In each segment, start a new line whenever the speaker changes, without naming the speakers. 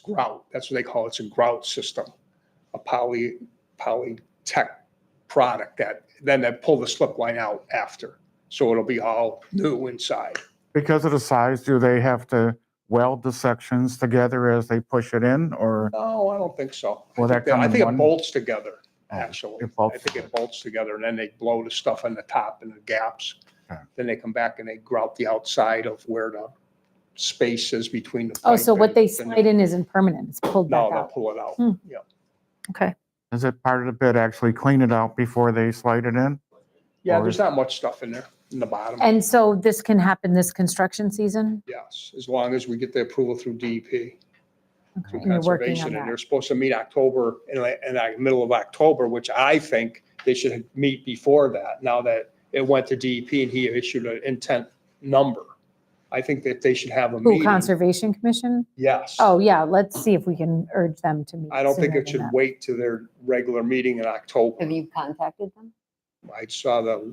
grout. That's what they call it. It's a grout system, a poly, polytech product that, then they pull the slip line out after. So it'll be all new inside.
Because of the size, do they have to weld the sections together as they push it in or?
No, I don't think so. I
Will that
think
come
I
in
think it
one-
bolts together,
Oh,
actually.
it bolts
I think it bolts together and then they blow the stuff on the top and the gaps.
Okay.
Then they come back and they grout the outside of where the space is between the.
Oh, so
pipe
what
and-
they
and
slide in isn't permanent, it's pulled
No,
back
they'll
out.
pull it out.
Hmm.
Yeah.
Okay,
Is it part of the bid actually clean it out before they slide it in?
Yeah,
Or
there's
is-
not much stuff in there, in the bottom.
and so this can happen this construction season?
Yes, as long as we get the approval through DEP,
Okay,
through
and you're working on
conservation, and
that.
they're supposed to meet October, in the, in the middle of October, which I think they should meet before that, now that it went to DEP and he issued an intent number. I think that they should have a
Who,
meeting,
Conservation Commission?
yes.
Oh, yeah, let's see if we can urge them to meet.
I don't think
sooner
it
than
should
that.
wait to their regular meeting in October.
Have you contacted them?
I saw the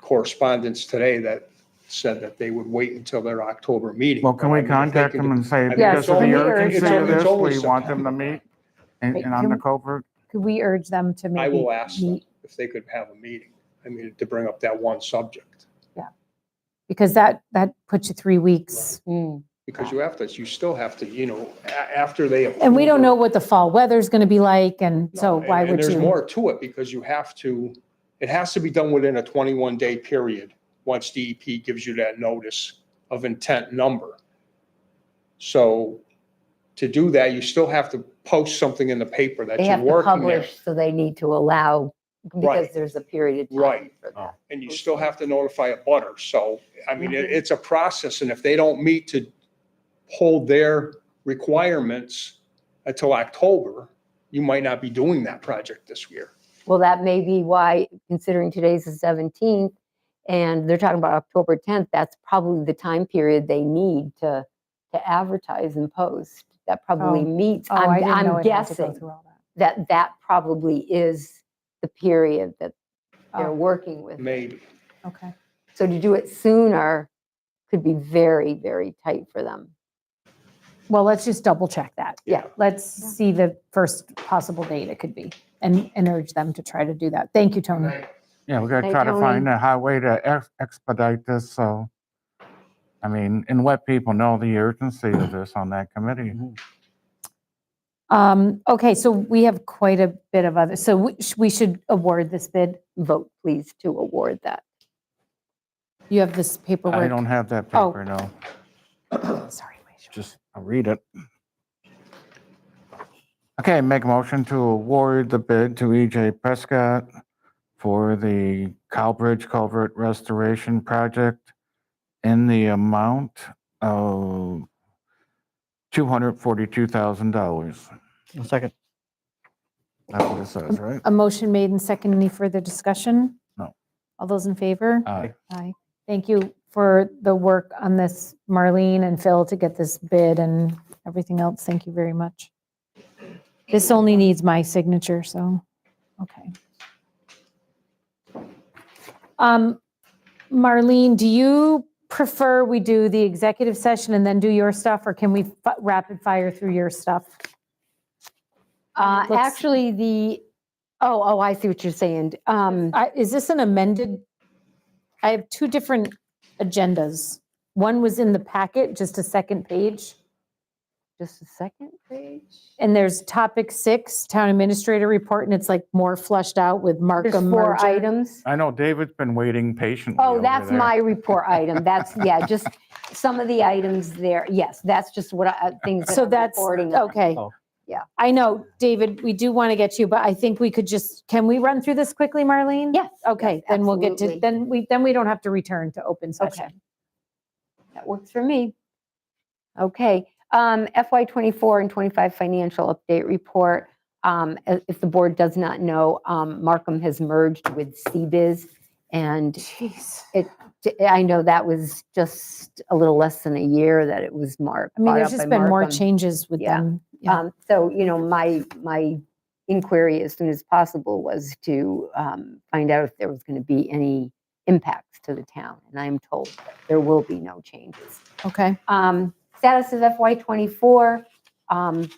correspondence today that said that they would wait until their October meeting.
Well,
but
can
I
we
mean, if they
contact
can
them
do-
and say
mean,
because
it's
of
only-
the
it's
urgency
only-
of
it's
this,
only
we want them to meet and
Wait,
and on
can
the
we-
covert?
Could we urge them to maybe?
I will ask them
meet-
if they could have a meeting. I mean, to bring up that one subject,
Because that, that puts you three weeks.
Mm,
because you have to, you still have to, you know, a- after they.
And we don't know
approve
what the fall weather's going to be like, and
it-
so
No,
why
and-
would
And there's
you?
more to it because you have to, it has to be done within a 21-day period, once DEP gives you that notice of intent number. So to do that, you still have to post something in the paper that
They
you're
have to
working there.
publish, so they need to allow, because
Right.
there's a period of time
Right. Uh.
for that.
and you still have to notify a butter. So, I mean, it, it's a process, and if they don't meet to hold their requirements until October, you might not be doing that project this year.
Well, that may be why, considering today's the 17th, and they're talking about October 10th, that's probably the time period they need to, to advertise and post. That probably
Oh.
meets,
Oh, I
I'm
didn't know it
I'm
had to go
guessing
through all that.
that that probably is the period that they're
Oh.
working with.
Maybe.
Okay,
So to do it sooner could be very, very tight for them.
well, let's just double check that.
Yeah.
Let's
Yeah.
see the first possible date it could be and, and urge them to try to do that. Thank you, Tony.
Yeah, we gotta
Hey,
try to
Tony.
find a highway to ex- expedite this, so. I mean, and let people know the urgency of this on that committee.
Mm-hmm. Um, okay, so we have quite a bit of other, so we, sh- we should award this bid.
Vote please to award that.
You have this
I
paperwork.
don't have that
Oh.
paper, no.
Sorry. Rachel.
just I'll read it. Okay, make a motion to award the bid to EJ Prescott for the Cowbridge Culvert Restoration Project in the amount of $242,000.
A second.
That's what it says, right?
A motion made and second. Any further discussion?
No.
All those in favor?
Aye.
Aye. Thank you for the work on this, Marlene and Phil, to get this bid and everything else. Thank you very much. This only needs my signature, so, okay. Um, Marlene, do you prefer we do the executive session and then do your stuff, or can we fi- rapid fire through your stuff?
Uh,
Let's-
Actually, the, oh, oh, I see what you're saying. Um,
I- Is this an amended? I have two different agendas. One was in the packet, just a second page,
Just a second page.
and there's topic six, town administrator report, and it's like more flushed out with
There's
Markham
four
merger.
items.
I know David's been waiting patiently
Oh,
over
that's
there.
my report item. That's, yeah, just some of the items there. Yes, that's just what I, uh, things that
So
I'm
that's,
reporting on.
okay.
Oh.
Yeah.
I know, David, we do want to get you, but I think we could just, can we run through this quickly, Marlene?
Yes.
Okay,
yes,
then we'll get to,
absolutely.
then we, then we don't have to return to open session.
That works for me. Okay, um, FY '24 and '25 financial update report. Um, i- If the board does not know, um, Markham has merged with CBIZ. And
Jeez.
t- eh, I know that was just a little less than a year that it was marked.
I mean, there's just been more changes with
Yeah.
them. Yeah.
Um, so, you know, my, my inquiry as soon as possible was to um, find out if there was going to be any impacts to the town. And I am told that there will be no changes.
Okay.
Um, Status of FY '24, um,